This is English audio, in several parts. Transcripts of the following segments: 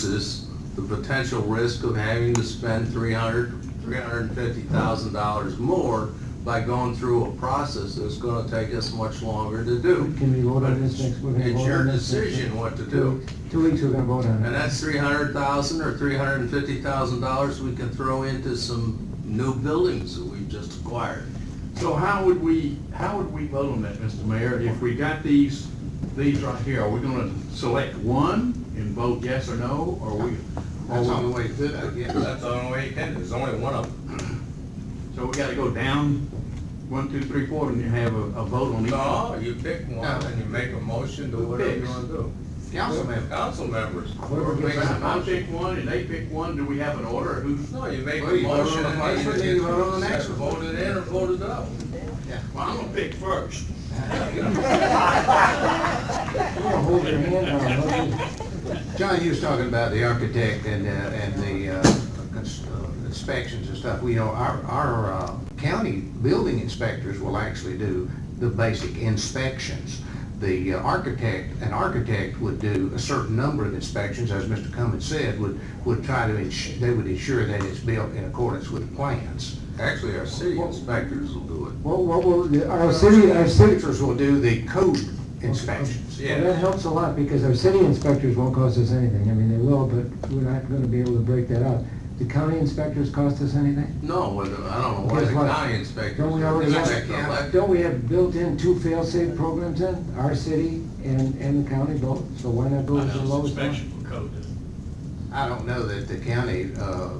assesses the potential risk of having to spend three hundred, three hundred and fifty thousand dollars more by going through a process that's gonna take us much longer to do. Can we vote on this next, we're gonna vote on this? It's your next week. decision what to do. Two weeks, we're gonna vote on And it. that's three hundred thousand or three hundred and fifty thousand dollars we can throw into some new buildings that we've just acquired. So how would we, how would we vote on that, Mr. Mayor? If we got these, these right here, are we gonna select one and vote yes or no, or we? That's the only way to do that, yeah, that's the only way you can, there's only one of them. So we gotta go down, one, two, three, four, and you have a, a vote on each No, one? you pick one and you make a motion to whatever you wanna do. Council member. Council members. Whoever Makes a I motion. pick one and they pick one, do we have an order, who's? No, you make a Well, you vote on motion the and either first one, then you you vote on the next one. voted in or voted out. Well, I'm gonna pick first. We're gonna hold your hand now, okay? John, you was talking about the architect and, uh, and the uh, cons- uh, inspections and stuff. We know our, our uh, county building inspectors will actually do the basic inspections. The uh, architect, an architect would do a certain number of inspections, as Mr. Cummins said, would, would try to, ensure they would ensure that it's built in accordance with the plans. Actually, our city inspectors will do it. What, what, will the- our city, our city, Inspectors will do the code inspections. Well, that helps a lot, because our city inspectors won't cost us anything, I mean, they will, but we're not gonna be able to break that out. The county inspectors cost us anything? No, whether, I don't know why the Guess what? county inspectors. Don't we already They're have- elected. Don't we have built-in two fail-safe programs in, our city and, and the county both, so why not go I with the know, lowest it's one? inspection for code, doesn't I don't know that the county uh, uh,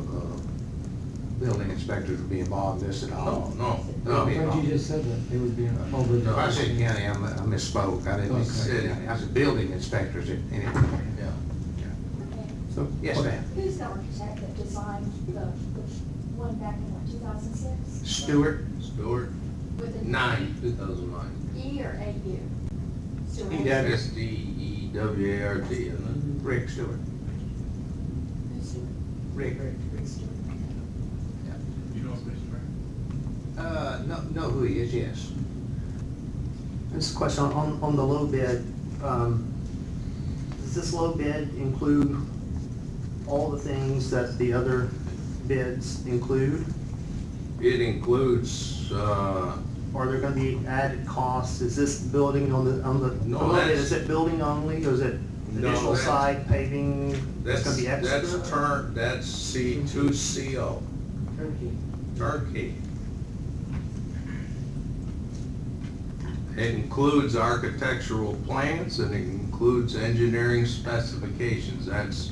building inspectors would be involved in this at all. No, no, But no. you just said that, they would be over. If I said county, I mi- I misspoke, I didn't mean to say county, I said building inspectors, in- anyway. Yeah. So, yes, ma'am. Who's the architect that designed the, the one back in what, two thousand six? Stewart, Stewart, With an nine, two thousand nine. E or A U? Stewart. He does. S D E W A R D, isn't Rick Stewart, Who's Stewart? Rick. Rick Stewart. it? You know, Mr. Mayor? Uh, know, know who he is, yes. This question, on, on the low bid, um, does this low bid include all the things that the other bids include? it? It includes, uh, Are there gonna be added costs? Is this building on the, on the, No, on the- that's- is it building only, or is it No, additional that's- site paving? It's that's, gonna be extra? that's turn, that's C two C O, Turnkey. turnkey. It includes architectural plans and it includes engineering specifications. That's,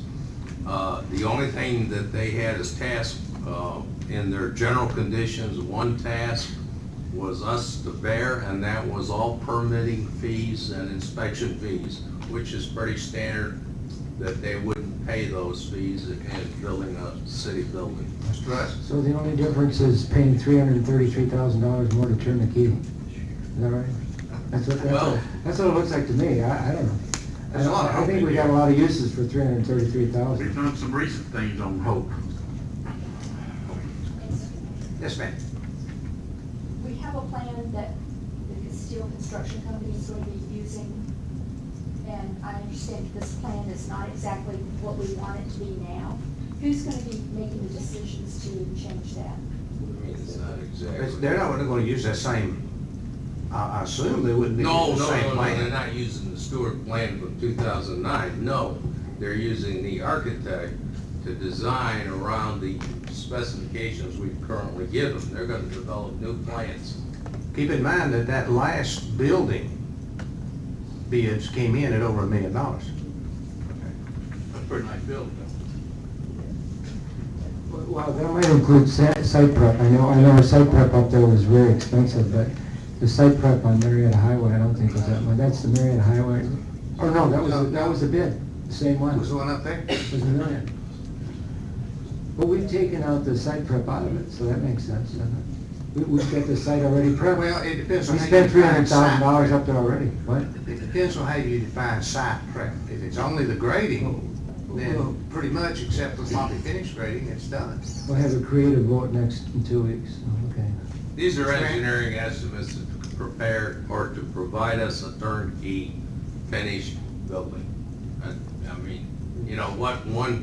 uh, the only thing that they had as task, uh, in their general conditions, one task was us to bear, and that was all permitting fees and inspection fees, which is pretty standard that they wouldn't pay those fees in in building a city building. That's right. So the only difference is paying three hundred and thirty-three thousand dollars more to turn the key. Is that right? That's what, that's Well- what, that's what it looks like to me, I, I don't know. I There's a lot of don't- I hope think in we got a here. lot of uses for three hundred and thirty-three We've thousand. done some recent things on hope. Yes, ma'am. We have a plan that the steel construction company is going to be using. And I understand this plan is not exactly what we want it to be now. Who's gonna be making the decisions to change that? It's not It's- exactly. They're not really gonna use that same, I, I assume they wouldn't be No, using the no, same no, no, they're plan. not using the Stewart plan from two thousand nine, no. They're using the architect to design around the specifications we currently give them. They're gonna develop new plans. Keep in mind that that last building bids came in at over a million dollars. That's a pretty nice building, though. Well, that might include sa- site prep, I know, I know our site prep up there was very expensive, but the site prep on Marietta Highway, I don't think was that much, that's the Marietta Highway. Oh, no, that was, that was a bid, the same one. Was the one up there? was a million. But we've taken out the site prep out of it, so that makes sense, doesn't it? We, we've got the site already prepped. Well, it depends on. We how you spent three define hundred thousand dollars site. up there already, what? It depends on how you define site prep. If it's only the grading, then pretty much, except for sloppy finish grading, it's done. We'll have a creative vote next, in two weeks, Oh, okay. These are engineering estimates to prepare or to provide us a turnkey finished building. I, I mean, you know, what one